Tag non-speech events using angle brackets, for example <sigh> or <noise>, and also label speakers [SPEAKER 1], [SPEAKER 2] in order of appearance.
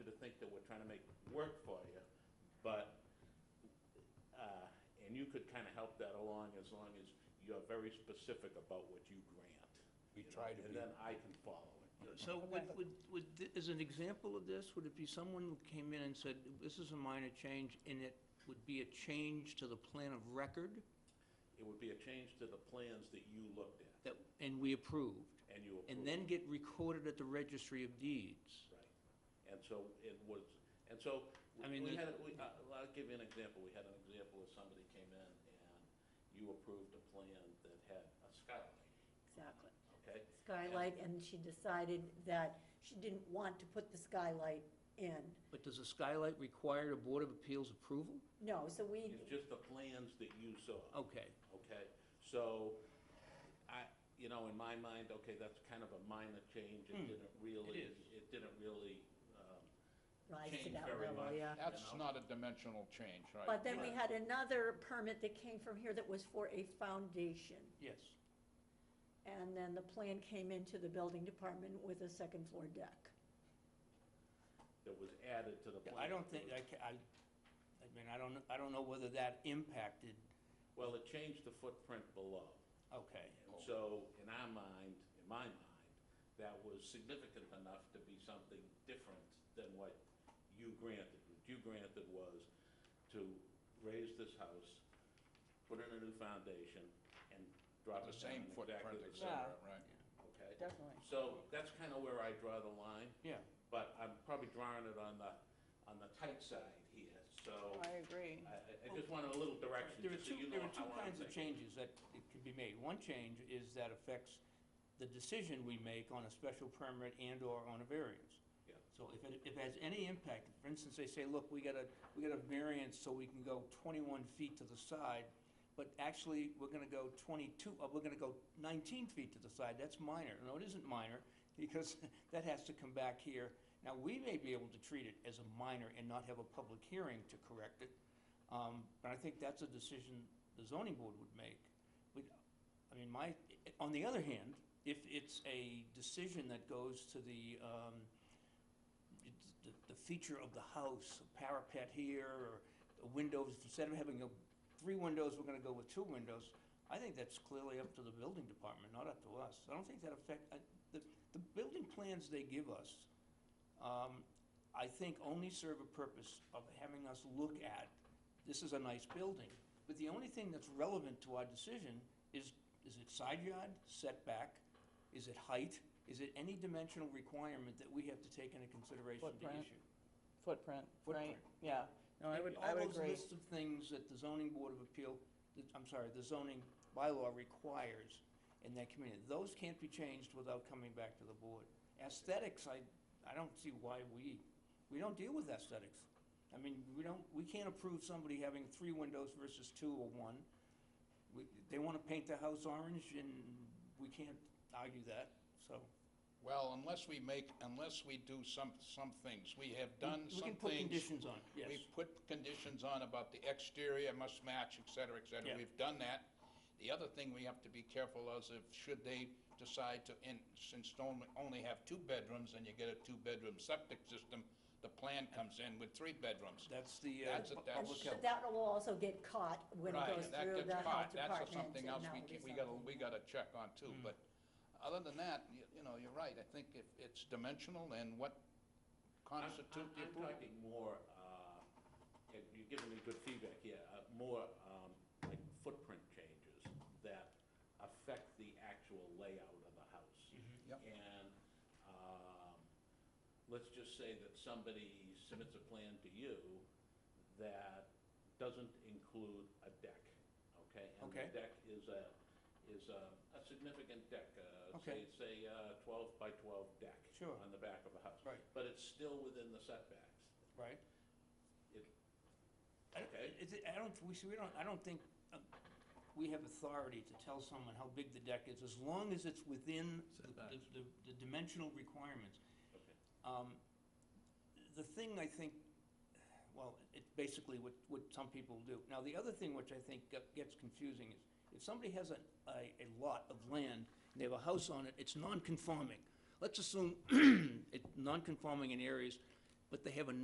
[SPEAKER 1] uh, could kind of help that along as long as you're very specific about what you grant.
[SPEAKER 2] We
[SPEAKER 1] you know,
[SPEAKER 2] try to
[SPEAKER 1] And
[SPEAKER 2] be.
[SPEAKER 1] then I can follow it.
[SPEAKER 3] So would, would, would, thi- as an example of this, would it be someone who came in and said, this is a minor change, and it would be a change to the plan of record
[SPEAKER 1] It would be a change to the plans that you looked at
[SPEAKER 3] that, and we approved,
[SPEAKER 1] and you approved.
[SPEAKER 3] and then get recorded at the registry of deeds?
[SPEAKER 1] Right. And so it was, and so,
[SPEAKER 3] I mean,
[SPEAKER 1] we
[SPEAKER 3] the-
[SPEAKER 1] had, we, I- I'll give you an example. We had an example of somebody came in and you approved a plan that had a skylight,
[SPEAKER 4] Exactly.
[SPEAKER 1] okay?
[SPEAKER 4] Skylight, and she decided that she didn't want to put the skylight in.
[SPEAKER 3] But does a skylight require a Board of Appeals approval?
[SPEAKER 4] No, so we,
[SPEAKER 1] It's just the plans that you saw.
[SPEAKER 3] Okay,
[SPEAKER 1] okay? So, I, you know, in my mind, okay, that's kind of a minor change, it didn't really,
[SPEAKER 3] is.
[SPEAKER 1] it didn't really, um,
[SPEAKER 4] rise to
[SPEAKER 1] change
[SPEAKER 4] that
[SPEAKER 1] very
[SPEAKER 4] level,
[SPEAKER 1] much.
[SPEAKER 4] yeah.
[SPEAKER 2] That's
[SPEAKER 1] You know?
[SPEAKER 2] not a dimensional change, right?
[SPEAKER 4] But then we had another permit that came from here that was for a foundation.
[SPEAKER 3] yes.
[SPEAKER 4] And then the plan came into the building department with a second floor deck.
[SPEAKER 1] that was added to the plan.
[SPEAKER 3] I don't think, I, ca- I, I mean, I don't, I don't know whether that impacted,
[SPEAKER 1] Well, it changed the footprint below.
[SPEAKER 3] okay.
[SPEAKER 1] And so, in our mind, in my mind, that was significant enough to be something different than what you granted. What you granted was to raise this house, put in a new foundation, and drop
[SPEAKER 2] The
[SPEAKER 1] it
[SPEAKER 2] same
[SPEAKER 1] down exactly
[SPEAKER 2] footprint,
[SPEAKER 1] the
[SPEAKER 2] et
[SPEAKER 1] same.
[SPEAKER 2] cetera, right?
[SPEAKER 1] Okay?
[SPEAKER 5] Definitely.
[SPEAKER 1] So that's kind of where I draw the line,
[SPEAKER 3] Yeah,
[SPEAKER 1] but I'm probably drawing it on the, on the tight side here, so I,
[SPEAKER 5] I agree.
[SPEAKER 1] I I just wanted a little direction,
[SPEAKER 3] there are
[SPEAKER 1] just so
[SPEAKER 3] two,
[SPEAKER 1] you know
[SPEAKER 3] there are
[SPEAKER 1] how
[SPEAKER 3] two
[SPEAKER 1] I'm
[SPEAKER 3] kinds of
[SPEAKER 1] thinking.
[SPEAKER 3] changes that it could be made. One change is that affects the decision we make on a special permit and/or on a variance.
[SPEAKER 1] Yeah.
[SPEAKER 3] So if it, if it has any impact, for instance, they say, look, we got a, we got a variance so we can go twenty-one feet to the side, but actually, we're gonna go twenty-two, uh, we're gonna go nineteen feet to the side, that's minor. No, it isn't minor, <laughs> because that has to come back here. Now, we may be able to treat it as a minor and not have a public hearing to correct it, um, but I think that's a decision the zoning board would make. We, I mean, my, on the other hand, if it's a decision that goes to the, um, it's the, the feature of the house, a parapet here, or the windows, instead of having a, three windows, we're gonna go with two windows. I think that's clearly up to the building department, not up to us. I don't think that affect, I, the, the building plans they give us, um, I think only serve a purpose of having us look at, this is a nice building. But the only thing that's relevant to our decision is, is it side yard, setback, is it height? Is it any dimensional requirement that we have to take into consideration to
[SPEAKER 5] Footprint,
[SPEAKER 3] issue?
[SPEAKER 5] Footprint, right?
[SPEAKER 3] Footprint.
[SPEAKER 5] Yeah. No, I would, I
[SPEAKER 3] All
[SPEAKER 5] would
[SPEAKER 3] those
[SPEAKER 5] agree.
[SPEAKER 3] lists of things that the zoning board of appeal, that- I'm sorry, the zoning bylaw requires in that community, those can't be changed without coming back to the board. Aesthetics, I, I don't see why we, we don't deal with aesthetics. I mean, we don't, we can't approve somebody having three windows versus two or one. We, they wanna paint the house orange and we can't argue that, so.
[SPEAKER 2] Well, unless we make, unless we do some, some things, we have
[SPEAKER 3] we-
[SPEAKER 2] done
[SPEAKER 3] We
[SPEAKER 2] some
[SPEAKER 3] can
[SPEAKER 2] things.
[SPEAKER 3] put conditions on, it, yes.
[SPEAKER 2] We've put conditions on about the exterior must match, et cetera, et
[SPEAKER 3] Yeah.
[SPEAKER 2] cetera. We've done that. The other thing we have to be careful of is if, should they decide to, in since only, only have two bedrooms and you get a two-bedroom septic system, the plan comes in with three bedrooms.
[SPEAKER 3] That's the, uh,
[SPEAKER 2] That's a-
[SPEAKER 4] And
[SPEAKER 2] that's-
[SPEAKER 3] public health.
[SPEAKER 4] that will also get caught when it
[SPEAKER 2] Right,
[SPEAKER 4] goes
[SPEAKER 2] that
[SPEAKER 4] through
[SPEAKER 2] gets
[SPEAKER 4] the health
[SPEAKER 2] caught.
[SPEAKER 4] department.
[SPEAKER 2] That's something
[SPEAKER 4] and
[SPEAKER 2] else
[SPEAKER 4] that will
[SPEAKER 2] we,
[SPEAKER 4] be
[SPEAKER 2] ca- we gotta,
[SPEAKER 4] something. Mm.
[SPEAKER 2] we gotta check on too, but other than that, you, you know, you're right, I think if it's dimensional and what
[SPEAKER 1] I'm-
[SPEAKER 2] constitute
[SPEAKER 1] I'm-
[SPEAKER 2] the
[SPEAKER 1] I'm
[SPEAKER 2] approval.
[SPEAKER 1] talking more, uh, and you're giving me good feedback, yeah, uh, more um, like footprint changes that affect the actual layout of the house.
[SPEAKER 2] Yep.
[SPEAKER 1] And um, let's just say that somebody submits a plan to you that doesn't include a deck, okay?
[SPEAKER 3] Okay.
[SPEAKER 1] And the deck is a, is a a significant deck, uh,
[SPEAKER 3] Okay.
[SPEAKER 1] say, say uh, 12 by 12 deck.
[SPEAKER 3] Sure.
[SPEAKER 1] On the back of a house
[SPEAKER 3] Right.
[SPEAKER 1] but it's still within the setbacks.
[SPEAKER 3] right?
[SPEAKER 1] It-
[SPEAKER 3] I don't-
[SPEAKER 1] Okay.
[SPEAKER 3] Is it, I don't, we, see, we don't, I don't think, um, we have authority to tell someone how big the deck is, as long as it's within the- the,
[SPEAKER 6] Setbacks.
[SPEAKER 3] the, the dimensional requirements.
[SPEAKER 1] Okay.
[SPEAKER 3] Um, The thing I think, well, it's basically what, what some people do. Now, the other thing which I think get- gets confusing is, if somebody has a, a, a lot of land, and they have a house on it, <clears throat> it's non-conforming. Let's assume it's non-conforming in areas, but they have a